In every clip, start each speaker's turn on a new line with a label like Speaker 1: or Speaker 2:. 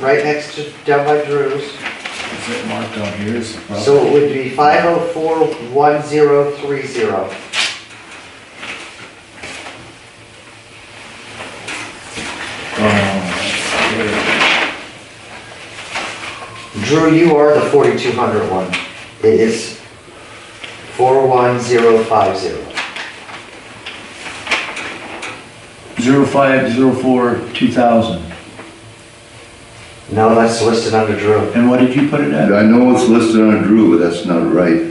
Speaker 1: right next to, down by Drew's.
Speaker 2: Is it marked on here as a problem?
Speaker 1: So it would be five oh four one zero three zero.
Speaker 3: um,
Speaker 2: Oh,
Speaker 1: Drew, you are the forty-two hundred one. It is four one zero five zero.
Speaker 3: Zero five, zero four, two thousand.
Speaker 1: No, that's listed under Drew.
Speaker 3: And what did you put it at?
Speaker 4: I know it's listed on Drew, but that's not right.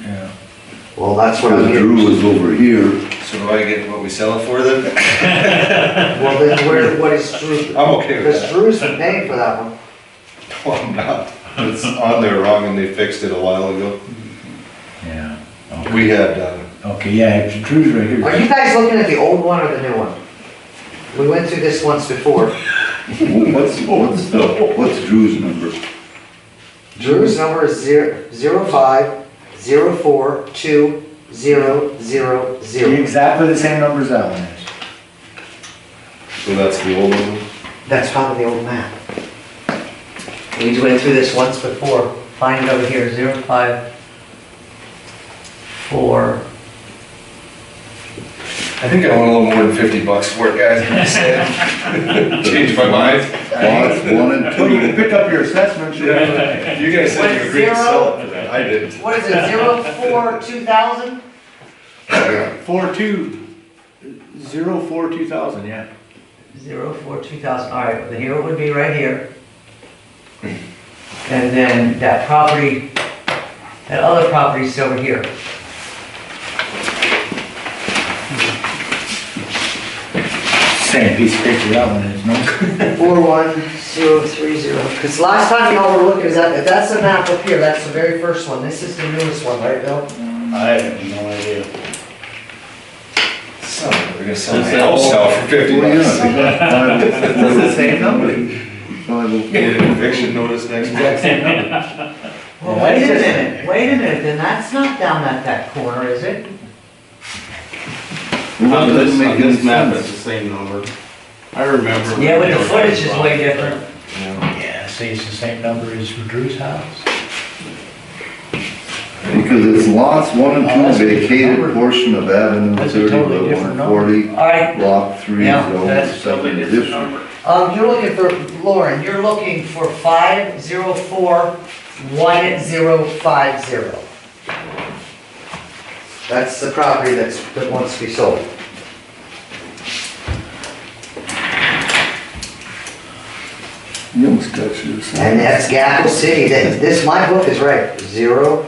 Speaker 3: Yeah.
Speaker 1: Well, that's what I'm
Speaker 4: Because Drew
Speaker 1: here.
Speaker 4: was over here.
Speaker 5: So do I get what we sell it for then?
Speaker 1: Well, then where, what is Drew?
Speaker 5: I'm okay with
Speaker 1: Because
Speaker 5: that.
Speaker 1: Drew's paying for that one.
Speaker 5: No, I'm not. It's on there wrong and they fixed it a while ago.
Speaker 3: Yeah.
Speaker 5: We had, uh,
Speaker 3: Okay, yeah, it's- Drew's
Speaker 1: Are
Speaker 3: right here.
Speaker 1: you guys looking at the old one or the new one? We went through this once before.
Speaker 4: What's, what's, what's Drew's number?
Speaker 1: Drew's number is zero, zero five, zero four, two, zero, zero, zero.
Speaker 3: Exactly the same number as that one is.
Speaker 5: so that's the old one.
Speaker 6: That's probably the old map. We went through this once before. Find over here, zero five, four.
Speaker 5: I think I want a little more than fifty bucks for it, guys. I'm just saying. Changed my mind.
Speaker 4: Lots one and
Speaker 3: Well, you can
Speaker 4: two.
Speaker 3: pick up your assessment.
Speaker 5: You guys said you agreed to sell it for that. I didn't.
Speaker 1: What is it, zero four, two thousand?
Speaker 3: Four two, zero four, two thousand, yeah.
Speaker 6: Zero four two thousand, all right, but here it would be right here. And then that property, that other property's over here.
Speaker 3: Same piece of paper that one is, no?
Speaker 1: Four one, zero three zero.
Speaker 6: Because last time y'all were looking, is that, that's the map up here, that's the very first one. This is the newest one, right, Bill?
Speaker 2: I have no idea.
Speaker 5: Son of a- We're gonna sell my house now for fifty bucks.
Speaker 4: That's
Speaker 3: the same number.
Speaker 5: Get an eviction notice next month.
Speaker 6: Well, wait a minute, wait a minute, then that's not down at that corner, is it?
Speaker 7: On this, on this map, it's the same number. I remember.
Speaker 6: Yeah, but the footage is way different.
Speaker 3: Yeah, see, it's the same number as Drew's house.
Speaker 4: Because it's lots one and two vacated portion of Avenue
Speaker 3: That's a
Speaker 4: thirty,
Speaker 3: totally
Speaker 4: Road
Speaker 3: different
Speaker 4: one forty,
Speaker 6: All right,
Speaker 4: block three,
Speaker 6: Yeah,
Speaker 4: zone
Speaker 7: That's totally
Speaker 4: second
Speaker 7: different
Speaker 4: district.
Speaker 7: number.
Speaker 6: um, you're looking for, Lauren, you're looking for five zero four one zero five zero.
Speaker 1: That's the property that's, that wants to be sold.
Speaker 4: You almost got yours.
Speaker 1: And that's Gackel City, that, this, my book is right, zero,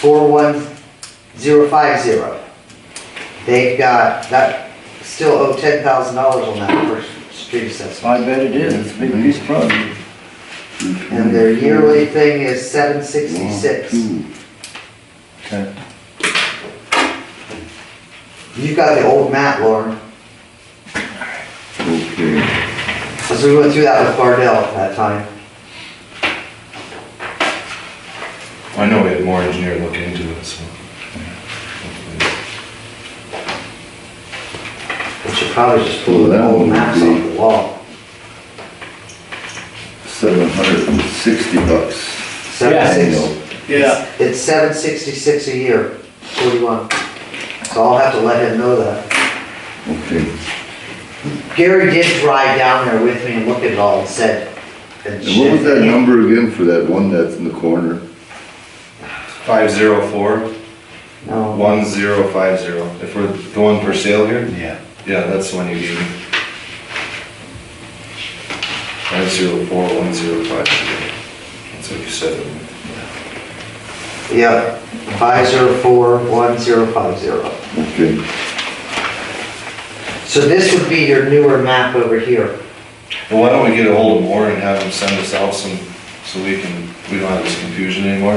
Speaker 1: four one, zero five zero. They've got, that, still owe ten thousand dollars on that first street assessment.
Speaker 3: I bet it is, it's a big piece of property.
Speaker 1: And their yearly thing is seven sixty-six.
Speaker 3: Okay.
Speaker 1: You got the old map, Lauren,
Speaker 4: Okay,
Speaker 1: because we went through that with Bardell at that time.
Speaker 5: I know we had more engineer look into it, so.
Speaker 1: We should probably just pull the old maps off the wall.
Speaker 4: seven hundred and sixty bucks.
Speaker 1: Seven six-
Speaker 4: Annual.
Speaker 7: Yeah.
Speaker 1: It's seven sixty-six a year, forty-one. So I'll have to let him know that.
Speaker 4: Okay,
Speaker 1: Gary did ride down there with me and look at it all and said. And
Speaker 4: and what was that number again for that one that's in the corner?
Speaker 5: Five zero four,
Speaker 1: No,
Speaker 5: one zero five zero. If we're the one for sale here?
Speaker 3: Yeah.
Speaker 5: Yeah, that's the one you gave me. Five zero four one zero five zero. That's what you said.
Speaker 1: yeah, five zero four one zero five zero.
Speaker 4: Okay,
Speaker 1: So this would be your newer map over here.
Speaker 5: Well, why don't we get a hold of Warren and have him send us out some, so we can, we don't have this confusion anymore?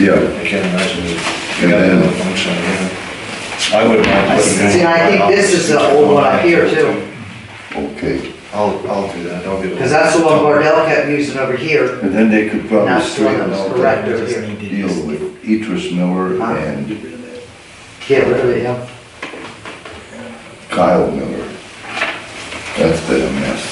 Speaker 4: yeah,
Speaker 5: I can't imagine it. We
Speaker 4: And
Speaker 5: got
Speaker 4: then-
Speaker 5: another function, yeah. I wouldn't mind putting. it in.
Speaker 1: See, I think this is the old one up here too,
Speaker 4: okay.
Speaker 5: I'll, I'll do that, I'll get. a-
Speaker 1: because that's the one Bardell kept using over here.
Speaker 4: And then they could
Speaker 1: And
Speaker 4: probably
Speaker 1: that's the one that
Speaker 4: straighten out
Speaker 1: was
Speaker 4: that
Speaker 1: correct over here.
Speaker 4: deal with Etris Miller
Speaker 1: Huh?
Speaker 4: and
Speaker 1: Get rid of it, yeah.
Speaker 4: Kyle Miller. That's been a mess.